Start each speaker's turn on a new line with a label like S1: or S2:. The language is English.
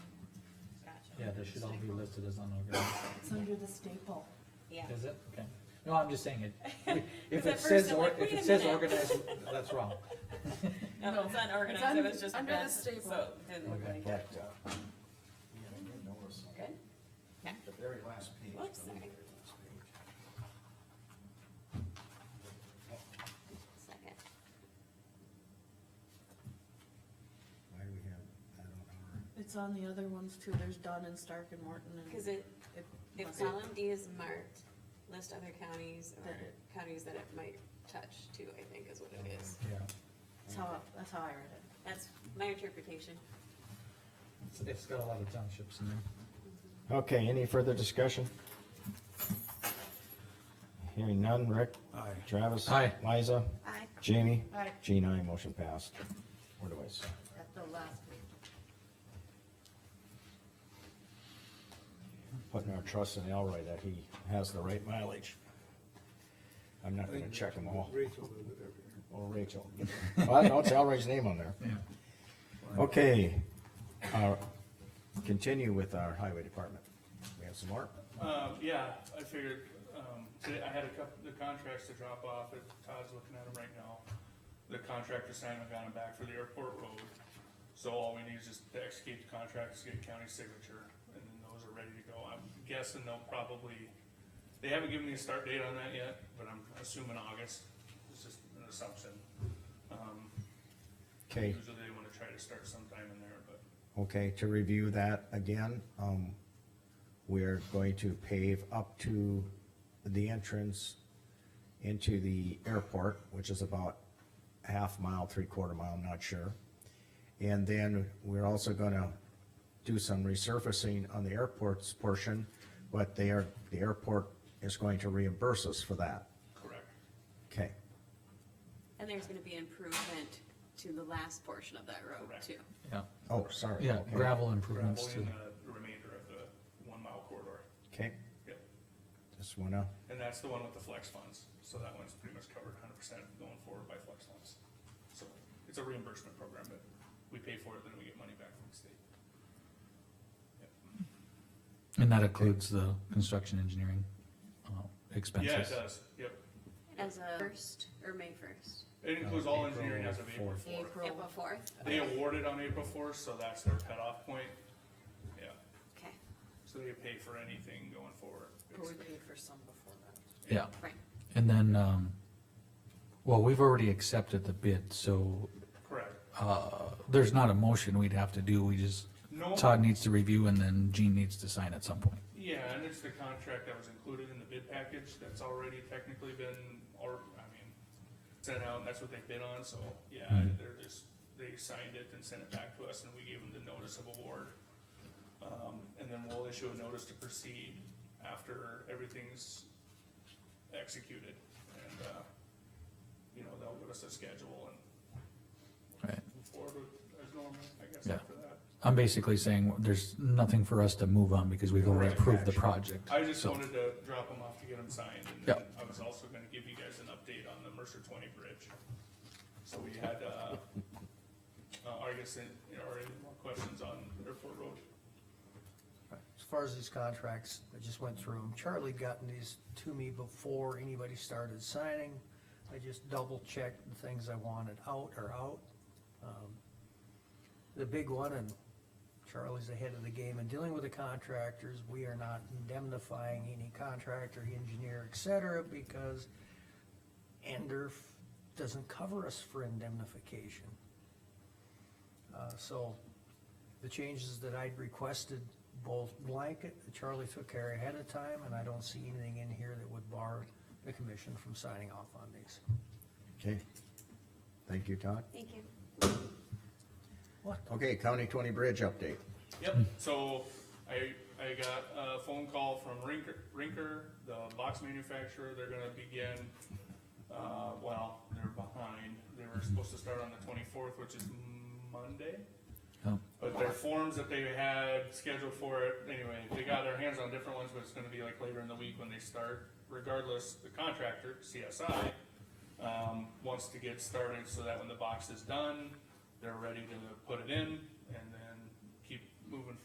S1: Yeah, they should all be listed as unorganized,
S2: It's under the staple.
S3: Yeah,
S1: is it? Okay. No, I'm just saying it, if
S3: 'Cause at
S1: it
S3: first
S1: says,
S3: I'm
S1: or
S3: like,
S1: if
S3: wait
S1: it
S3: a
S1: says
S3: minute.
S1: organized, that's wrong.
S3: no, it's unorganized, it
S2: un-
S3: was just a
S2: under the
S3: mess, so
S2: staple.
S3: it didn't look
S1: Okay.
S3: like that.
S4: But, uh, yeah, I didn't notice,
S3: Good?
S4: the very last page.
S3: Whoops,
S4: the very
S3: sorry.
S4: last page.
S3: Second.
S4: Why do we have that on our?
S2: It's on the other ones too, there's Dunn and Stark and Morton and.
S3: Cause it,
S2: it
S3: if
S2: must-
S3: column D is marked, list other counties or
S2: That it-
S3: counties that it might touch too, I think is what it is.
S1: Yeah,
S2: That's how, I- that's how I read it.
S3: That's my interpretation.
S1: It's- it's got a lot of townships in there.
S5: Okay, any further discussion? Hearing none, Rick?
S4: Aye.
S5: Travis?
S1: Aye.
S5: Liza?
S2: Aye.
S5: Jamie?
S2: Aye.
S5: Jean, aye, motion passed. Where do I sign?
S2: At the last page.
S5: Putting our trust in Elroy that he has the right mileage. I'm not gonna check them all.
S4: Rachel will do it.
S5: Oh, Rachel. Well, no, it's Elroy's name on there. Okay, uh, continue with our highway department. We have some more?
S6: Um, yeah, I figured, um, today I had a couple, the contracts to drop off, if Todd's looking at them right now. The contractor signed them, got them back for the airport road, so all we need is just to execute the contracts, get county signature, and then those are ready to go. I'm guessing they'll probably, they haven't given me a start date on that yet, but I'm assuming August, it's just an assumption. Um,
S5: Okay.
S6: Usually they wanna try to start sometime in there, but
S5: Okay, to review that again, um, we're going to pave up to the entrance into the airport, which is about half mile, three quarter mile, I'm not sure. And then we're also gonna do some resurfacing on the airport's portion, but they are, the airport is going to reimburse us for that.
S6: correct.
S5: Okay,
S3: And there's gonna be improvement to the last portion of that road
S6: Correct.
S3: too.
S1: Yeah,
S5: oh, sorry.
S1: yeah,
S5: Okay.
S1: gravel improvements too.
S6: Gravel in the remainder of the one mile corridor,
S5: Okay,
S6: yep.
S5: just wanna,
S6: And that's the one with the flex funds, so that one's pretty much covered hundred percent going forward by flex funds. So it's a reimbursement program, but we pay for it, then we get money back from the state.
S1: And that includes the construction engineering, uh, expenses.
S6: Yeah, it does, yep.
S3: As a first or May first?
S6: It includes all engineering as of April
S5: fourth.
S6: fourth.
S2: April.
S3: April fourth?
S6: They awarded on April fourth, so that's their cutoff point. Yeah,
S3: Okay,
S6: so they pay for anything going forward.
S2: But we
S6: basically.
S2: paid for some before that.
S1: Yeah,
S3: right.
S1: and then, um, well, we've already accepted the bid, so,
S6: Correct.
S1: uh, there's not a motion we'd have to do, we just,
S6: No.
S1: Todd needs to review and then Gene needs to sign at some point.
S6: Yeah, and it's the contract that was included in the bid package that's already technically been, or, I mean, sent out, and that's what they bid on, so, yeah, they're just, they signed it and sent it back to us, and we gave them the notice of award. Um, and then we'll issue a notice to proceed after everything's executed, and, uh, you know, they'll give us a schedule and
S1: Right.
S6: move forward with- as normal, I guess,
S1: Yeah.
S6: after that.
S1: I'm basically saying there's nothing for us to move on because we've already approved the project.
S6: I just
S1: so-
S6: wanted to drop them off to get them signed, and then
S1: Yep.
S6: I was also gonna give you guys an update on the Mercer twenty bridge. So we had, uh, uh, I guess, any- or any more questions on Airport Road?
S7: As far as these contracts, I just went through them. Charlie gotten these to me before anybody started signing. I just double checked the things I wanted out are out. Um, The big one, and Charlie's ahead of the game in dealing with the contractors, we are not indemnifying any contractor, engineer, et cetera, because Ender doesn't cover us for indemnification. Uh, so the changes that I'd requested, both blanket, Charlie took care ahead of time, and I don't see anything in here that would bar the commission from signing off on these.
S5: okay. Thank you, Todd.
S3: Thank you.
S5: Okay, County Twenty Bridge update.
S6: Yep, so I, I got a phone call from Rinker, Rinker, the box manufacturer, they're gonna begin, uh, well, they're behind, they were supposed to start on the twenty-fourth, which is Monday?
S1: Oh.
S6: But their forms that they had scheduled for it, anyway, they got their hands on different ones, but it's gonna be like later in the week when they start. Regardless, the contractor, CSI, um, wants to get started so that when the box is done, they're ready to put it in and then keep moving